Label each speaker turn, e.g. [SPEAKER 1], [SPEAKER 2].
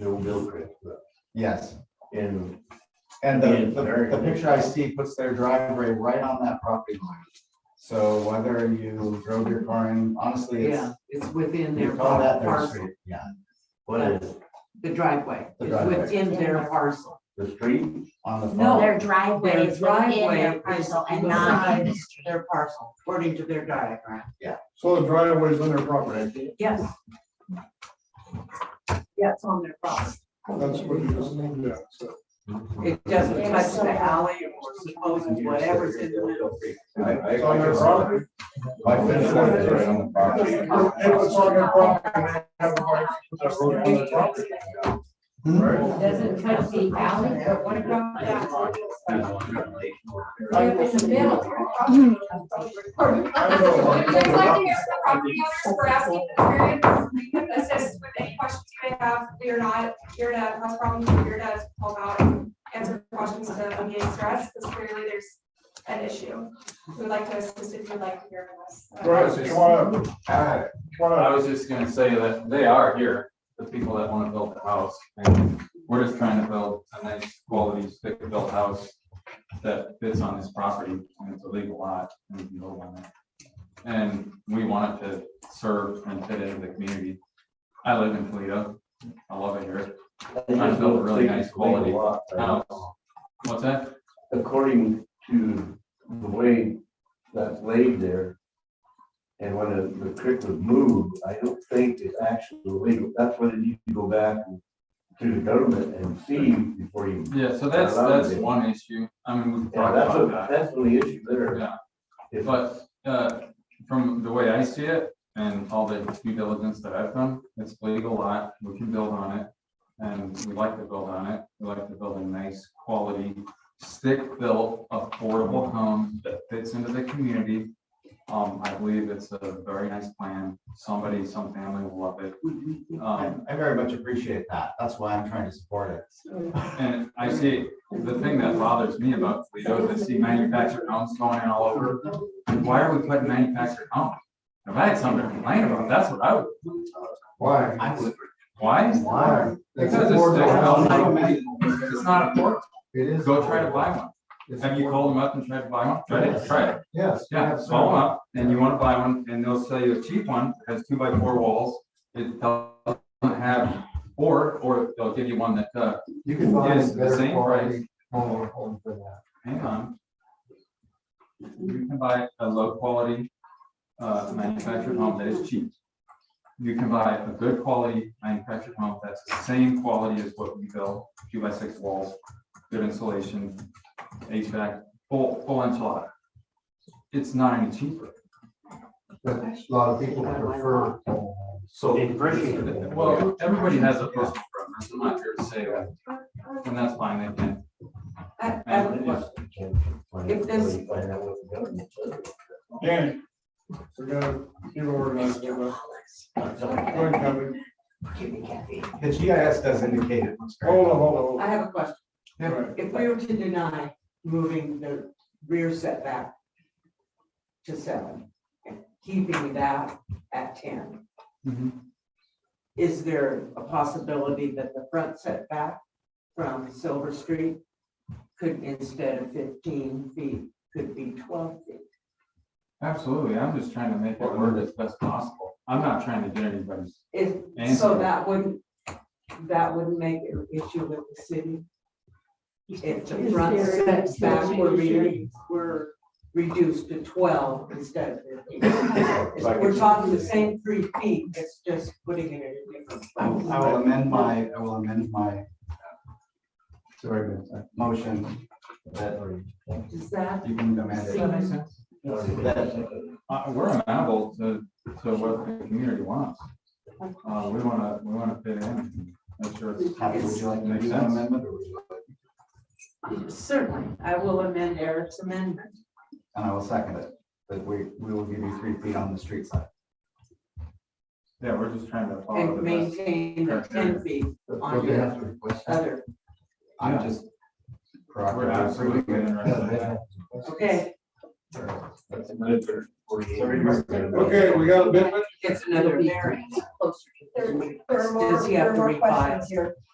[SPEAKER 1] Bill Gilchrist, but
[SPEAKER 2] Yes,
[SPEAKER 1] in
[SPEAKER 2] and the,
[SPEAKER 1] Yeah,
[SPEAKER 2] the,
[SPEAKER 1] very
[SPEAKER 2] the
[SPEAKER 1] good.
[SPEAKER 2] picture I see puts their driveway right on that property line. So whether you drove your car in, honestly, it's.
[SPEAKER 3] Yeah, it's within
[SPEAKER 2] you
[SPEAKER 3] their
[SPEAKER 2] call that their
[SPEAKER 3] parcel,
[SPEAKER 2] street, Yeah,
[SPEAKER 1] what is it,
[SPEAKER 3] the driveway,
[SPEAKER 2] The
[SPEAKER 3] it's
[SPEAKER 2] driveway.
[SPEAKER 3] within their parcel.
[SPEAKER 1] the street?
[SPEAKER 2] on the.
[SPEAKER 3] No,
[SPEAKER 2] farm.
[SPEAKER 4] Their driveway
[SPEAKER 3] Their
[SPEAKER 4] is within
[SPEAKER 3] driveway
[SPEAKER 4] their
[SPEAKER 3] is
[SPEAKER 4] parcel and not
[SPEAKER 3] beside
[SPEAKER 4] in the street.
[SPEAKER 3] Their parcel, according to their diagram.
[SPEAKER 1] So the driveway is on their property.
[SPEAKER 3] Yes. Yeah, it's on their property.
[SPEAKER 5] That's what it is, yeah, so.
[SPEAKER 3] It doesn't
[SPEAKER 4] Yeah,
[SPEAKER 3] touch
[SPEAKER 4] so-
[SPEAKER 3] the alley or supposedly whatever's in the middle.
[SPEAKER 1] I, I.
[SPEAKER 5] It's on their property.
[SPEAKER 2] My fence line is right on the property.
[SPEAKER 5] If it's on their property, they have a right to put that road on their property.
[SPEAKER 1] Hmm.
[SPEAKER 5] Right?
[SPEAKER 6] Doesn't touch the alley, but what about that? They're in the middle.
[SPEAKER 5] I don't know.
[SPEAKER 7] Would you like to hear from the property owners for asking for variance? We can assist with any questions you may have. We are not here to cause problems. We're here to help out and answer questions to alleviate stress. Because clearly there's an issue. We'd like to assist if you'd like to hear from us.
[SPEAKER 5] Right, you wanna,
[SPEAKER 2] Ah,
[SPEAKER 5] you wanna,
[SPEAKER 8] I was just gonna say that they are here, the people that wanna build the house, and we're just trying to build a nice quality stick-built house that fits on this property, and it's a legal lot, and we can build on it. And we want it to serve and fit into the community. I live in Toledo, I love it here. I built a really nice quality house. What's that?
[SPEAKER 1] According to the way that's laid there, and when the- the creek was moved, I don't think it's actually legal, that's what you need to go back to the government and see before you.
[SPEAKER 8] Yeah, so that's, that's one issue, I mean, we've
[SPEAKER 1] Yeah,
[SPEAKER 8] talked
[SPEAKER 1] that's,
[SPEAKER 8] about
[SPEAKER 1] a-
[SPEAKER 8] that.
[SPEAKER 1] that's the issue there.
[SPEAKER 8] Yeah.
[SPEAKER 1] If-
[SPEAKER 8] But uh, from the way I see it and all the due diligence that I've done, it's legal lot, we can build on it. And we like to build on it. We like to build a nice quality, stick-built, affordable home that fits into the community. Um, I believe it's a very nice plan. Somebody, some family will love it.
[SPEAKER 2] I
[SPEAKER 8] Um,
[SPEAKER 2] I very much appreciate that. That's why I'm trying to support it.
[SPEAKER 8] and I see, the thing that bothers me about Toledo is I see manufactured homes going in all over. And why are we putting manufactured homes? If I had something to complain about, that's what I would,
[SPEAKER 5] why?
[SPEAKER 2] I would,
[SPEAKER 8] why?
[SPEAKER 2] why?
[SPEAKER 8] Because
[SPEAKER 5] It's
[SPEAKER 8] it's
[SPEAKER 5] affordable.
[SPEAKER 8] just- It's not affordable.
[SPEAKER 5] It is.
[SPEAKER 8] Go try to buy one.
[SPEAKER 5] It's-
[SPEAKER 8] Have you called them up and tried to buy one? Try it, try it.
[SPEAKER 5] Yes. we
[SPEAKER 8] Yeah,
[SPEAKER 5] have
[SPEAKER 8] call them
[SPEAKER 5] some.
[SPEAKER 8] up and you want to buy one and they'll sell you a cheap one that has two by four walls. It doesn't have, or, or they'll give you one that, uh,
[SPEAKER 5] You can buy
[SPEAKER 8] Yes,
[SPEAKER 5] a
[SPEAKER 8] the
[SPEAKER 5] better
[SPEAKER 8] same
[SPEAKER 5] quality home, home for that.
[SPEAKER 8] hang on. You can buy a low quality uh, manufactured home that is cheap. You can buy a good quality manufactured home that's the same quality as what we build, two by six walls, good insulation, HVAC, full, full enchilada. It's not any cheaper.
[SPEAKER 5] But a lot of people prefer. home homes.
[SPEAKER 1] So.
[SPEAKER 8] Well, everybody has a personal preference. I'm not here to say that. And that's fine, they can.
[SPEAKER 3] I- I would-
[SPEAKER 8] And if-
[SPEAKER 3] If this-
[SPEAKER 5] Danny, we're gonna, you organize it, but. uh, Go ahead, Kevin.
[SPEAKER 2] The GIS does indicate it looks great.
[SPEAKER 5] Hold on, hold on,
[SPEAKER 3] I have a question.
[SPEAKER 5] hold on. Right.
[SPEAKER 3] If we were to deny moving the rear setback to seven, and keeping that at ten,
[SPEAKER 8] Mhm.
[SPEAKER 3] is there a possibility that the front setback from Silver Street could, instead of fifteen feet, could be twelve feet?
[SPEAKER 8] Absolutely. I'm just trying to make it work as best possible. I'm not trying to get anybody's
[SPEAKER 3] If, so
[SPEAKER 8] Answer.
[SPEAKER 3] that wouldn't, that wouldn't make an issue with the city? If the front
[SPEAKER 6] Is there-
[SPEAKER 3] setback were re- were reduced to twelve instead of fifteen? It's- We're talking the same three feet, it's just putting it in a different
[SPEAKER 2] I will I
[SPEAKER 3] place.
[SPEAKER 2] will amend my, I will amend my, uh, sorry, my motion that
[SPEAKER 3] Does that
[SPEAKER 2] you can amend it.
[SPEAKER 3] seem
[SPEAKER 8] Uh, we're amenable to, to what the community wants. Uh, we wanna, we wanna fit in, make sure it's.
[SPEAKER 2] Happy, would you like to do that amendment or would you like?
[SPEAKER 6] Certainly, I will amend Eric's amendment.
[SPEAKER 2] And I will second it, that we, we will give you three feet on the street side.
[SPEAKER 8] Yeah, we're just trying to follow
[SPEAKER 3] and
[SPEAKER 8] the best.
[SPEAKER 3] maintain the ten feet
[SPEAKER 5] Don't they have to request that?
[SPEAKER 3] other?
[SPEAKER 2] I'm
[SPEAKER 8] Yeah.
[SPEAKER 2] just.
[SPEAKER 8] We're absolutely interested
[SPEAKER 3] Okay,
[SPEAKER 5] Okay, we got a bit,
[SPEAKER 3] it's another variance.
[SPEAKER 7] There there are
[SPEAKER 3] Does
[SPEAKER 7] more,
[SPEAKER 3] he have
[SPEAKER 7] there are
[SPEAKER 3] to
[SPEAKER 7] more
[SPEAKER 3] reply?
[SPEAKER 7] questions here.